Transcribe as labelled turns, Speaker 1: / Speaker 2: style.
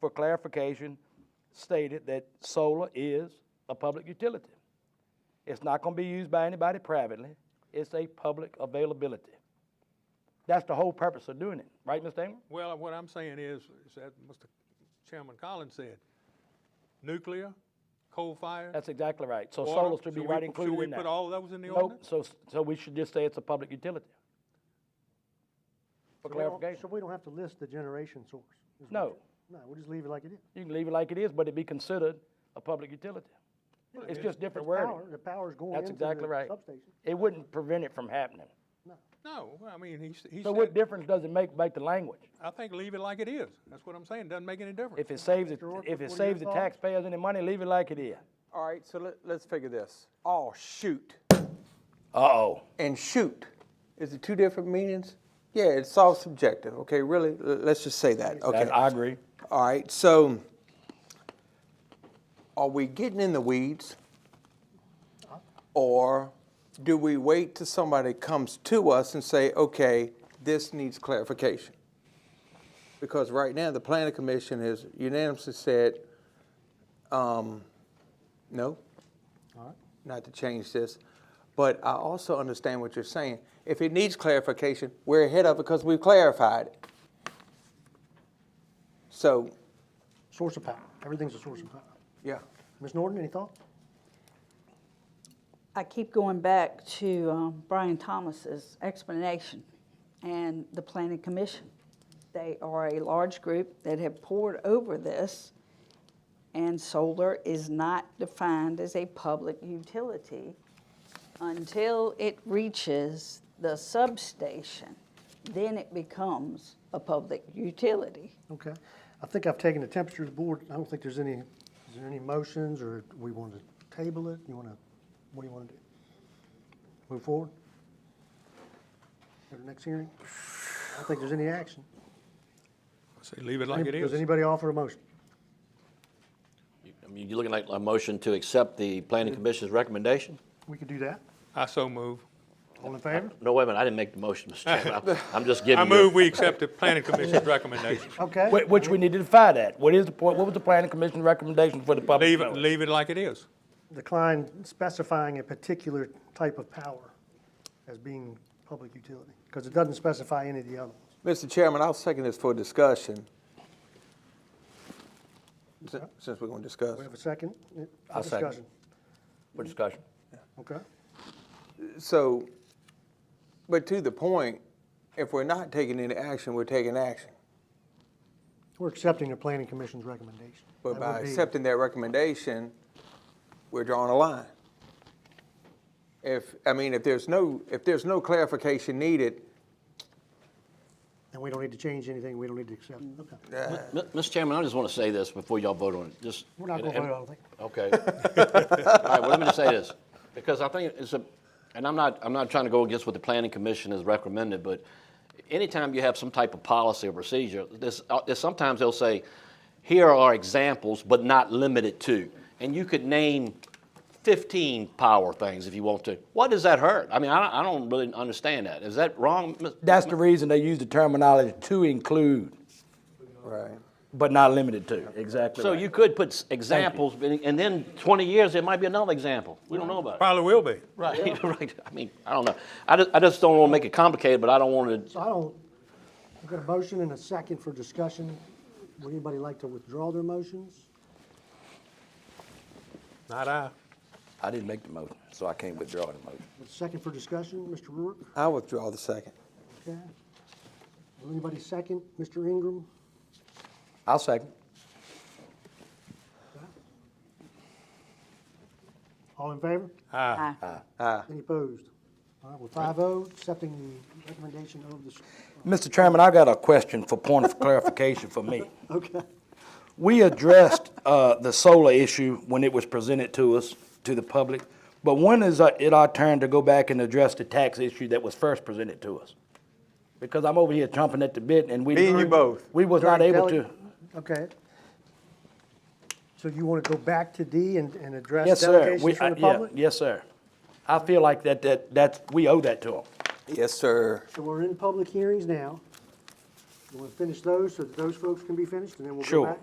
Speaker 1: for clarification, stated that solar is a public utility. It's not gonna be used by anybody privately, it's a public availability. That's the whole purpose of doing it, right, Mr. Ingram?
Speaker 2: Well, what I'm saying is, is that Mr. Chairman Collins said, nuclear, coal fire.
Speaker 1: That's exactly right, so
Speaker 2: water,
Speaker 1: solar should be
Speaker 2: we-
Speaker 1: right included in that.
Speaker 2: Should we put all those in the
Speaker 1: Nope,
Speaker 2: ordinance?
Speaker 1: so, so we should just say it's a public utility. For
Speaker 3: So we don't-
Speaker 1: clarification,
Speaker 3: So we don't have to list the generation source? is what
Speaker 1: No.
Speaker 3: you- No, we'll just leave it like it is.
Speaker 1: you can leave it like it is, but it be considered a public utility. It's just different
Speaker 3: It's
Speaker 1: wording.
Speaker 3: power- The power's going
Speaker 1: That's
Speaker 3: into
Speaker 1: exactly
Speaker 3: the
Speaker 1: right.
Speaker 3: substation.
Speaker 1: It wouldn't prevent it from happening.
Speaker 2: No, I mean, he, s- he
Speaker 1: So what
Speaker 2: said,
Speaker 1: difference does it make, make the language?
Speaker 2: I think leave it like it is. That's what I'm saying, doesn't make any difference.
Speaker 1: If it saves, it-
Speaker 3: Mr. Orford,
Speaker 1: if
Speaker 3: what are
Speaker 1: it
Speaker 3: your
Speaker 1: saves the
Speaker 3: thoughts?
Speaker 1: taxpayers any money, leave it like it is.
Speaker 4: All right, so let, let's figure this. Oh, shoot
Speaker 1: Uh-oh.
Speaker 4: and shoot. Is it two different meanings? Yeah, it's all subjective. Okay, really, l- let's just say that. Okay.
Speaker 1: That- I agree.
Speaker 4: All right, so are we getting in the weeds? Or do we wait till somebody comes to us and say, okay, this needs clarification? Because right now, the planning commission has unanimously said, um, no, not to change this. But I also understand what you're saying. If it needs clarification, we're ahead of it because we've clarified it. So,
Speaker 3: Source of power. Everything's a source of power.
Speaker 4: yeah.
Speaker 3: Ms. Norton, any thoughts?
Speaker 5: I keep going back to um, Brian Thomas's explanation and the planning commission. They are a large group that have poured over this, and solar is not defined as a public utility until it reaches the substation. Then it becomes a public utility.
Speaker 3: Okay. I think I've taken the temperature of the board. I don't think there's any, is there any motions or we want to table it? You want to, what do you want to do? Move forward? Go to the next hearing? I don't think there's any action.
Speaker 2: Say, leave it like it
Speaker 3: Does
Speaker 2: is.
Speaker 3: anybody offer a motion?
Speaker 6: I mean, you're looking like a motion to accept the planning commission's recommendation?
Speaker 3: We could do that.
Speaker 2: I so move.
Speaker 3: All in favor?
Speaker 6: No, wait a minute, I didn't make the motion, Mr. Chairman. I'm- I'm just giving
Speaker 2: I
Speaker 6: you-
Speaker 2: move we accept the planning commission's recommendation.
Speaker 3: Okay.
Speaker 1: Wh- Which we need to defy that. What is the point, what was the planning commission's recommendation for the public?
Speaker 2: Leave it,
Speaker 1: notice?
Speaker 2: leave it like it is.
Speaker 3: decline specifying a particular type of power as being public utility, because it doesn't specify any of the other ones.
Speaker 4: Mr. Chairman, I'll second this for discussion. Si- Since we're going to discuss.
Speaker 3: We have a second? uh,
Speaker 1: I'll second.
Speaker 3: discussion.
Speaker 1: For discussion.
Speaker 3: Okay,
Speaker 4: So, but to the point, if we're not taking any action, we're taking action.
Speaker 3: we're accepting the planning commission's recommendation.
Speaker 4: But
Speaker 3: That
Speaker 4: by
Speaker 3: would be-
Speaker 4: accepting that recommendation, we're drawing a line. If, I mean, if there's no, if there's no clarification needed,
Speaker 3: And we don't need to change anything, we don't need to accept,
Speaker 1: Mm.
Speaker 3: okay.
Speaker 6: M- Mr. Chairman, I just want to say this before y'all vote on it, just.
Speaker 3: We're not going
Speaker 6: and-
Speaker 3: to
Speaker 6: and-
Speaker 3: vote on it.
Speaker 6: Okay. All right, well, let me just say this, because I think it's a, and I'm not, I'm not trying to go against what the planning commission has recommended, but anytime you have some type of policy or procedure, there's, uh, there's sometimes they'll say, here are examples, but not limited to. And you could name 15 power things if you want to. What does that hurt? I mean, I, don't- I don't really understand that. Is that wrong? Ms.
Speaker 1: That's the reason they use the terminology to include,
Speaker 4: right.
Speaker 1: but not limited to, exactly
Speaker 6: So
Speaker 1: right.
Speaker 6: you could put s- examples, and and then 20 years, there might be another example. We don't know about it.
Speaker 2: Probably will be.
Speaker 6: Right, right. I mean, I don't know. I just, I just don't want to make it complicated, but I don't want to,
Speaker 3: So I don't, we've got a motion and a second for discussion. Would anybody like to withdraw their motions?
Speaker 2: Not I.
Speaker 1: I didn't make the motion, so I can't withdraw the motion.
Speaker 3: With a second for discussion, Mr. Rourke,
Speaker 4: I withdraw the second.
Speaker 3: okay? Will anybody second, Mr. Ingram?
Speaker 1: I'll second.
Speaker 3: All in favor?
Speaker 2: Aye.
Speaker 5: I-
Speaker 3: Any opposed? All right, well, five oh, accepting the recommendation of the, s-
Speaker 1: Mr. Chairman, I got a question for point of clarification for me.
Speaker 3: okay.
Speaker 1: We addressed uh, the solar issue when it was presented to us, to the public, but when is uh, it our turn to go back and address the tax issue that was first presented to us? Because I'm over here chomping at the bit and we.
Speaker 4: Me and you both.
Speaker 1: We was not
Speaker 3: During
Speaker 1: able
Speaker 3: deleg-
Speaker 1: to,
Speaker 3: Okay. So you want to go back to D and, and address
Speaker 1: yes, sir. We-
Speaker 3: delegations from the
Speaker 1: I- yeah,
Speaker 3: public?
Speaker 1: Yes, sir. I feel like that, that, that's, we owe that to them.
Speaker 4: Yes, sir.
Speaker 3: So we're in public hearings now. You want to finish those so that those folks can be finished and then we'll go
Speaker 1: Sure.
Speaker 3: back?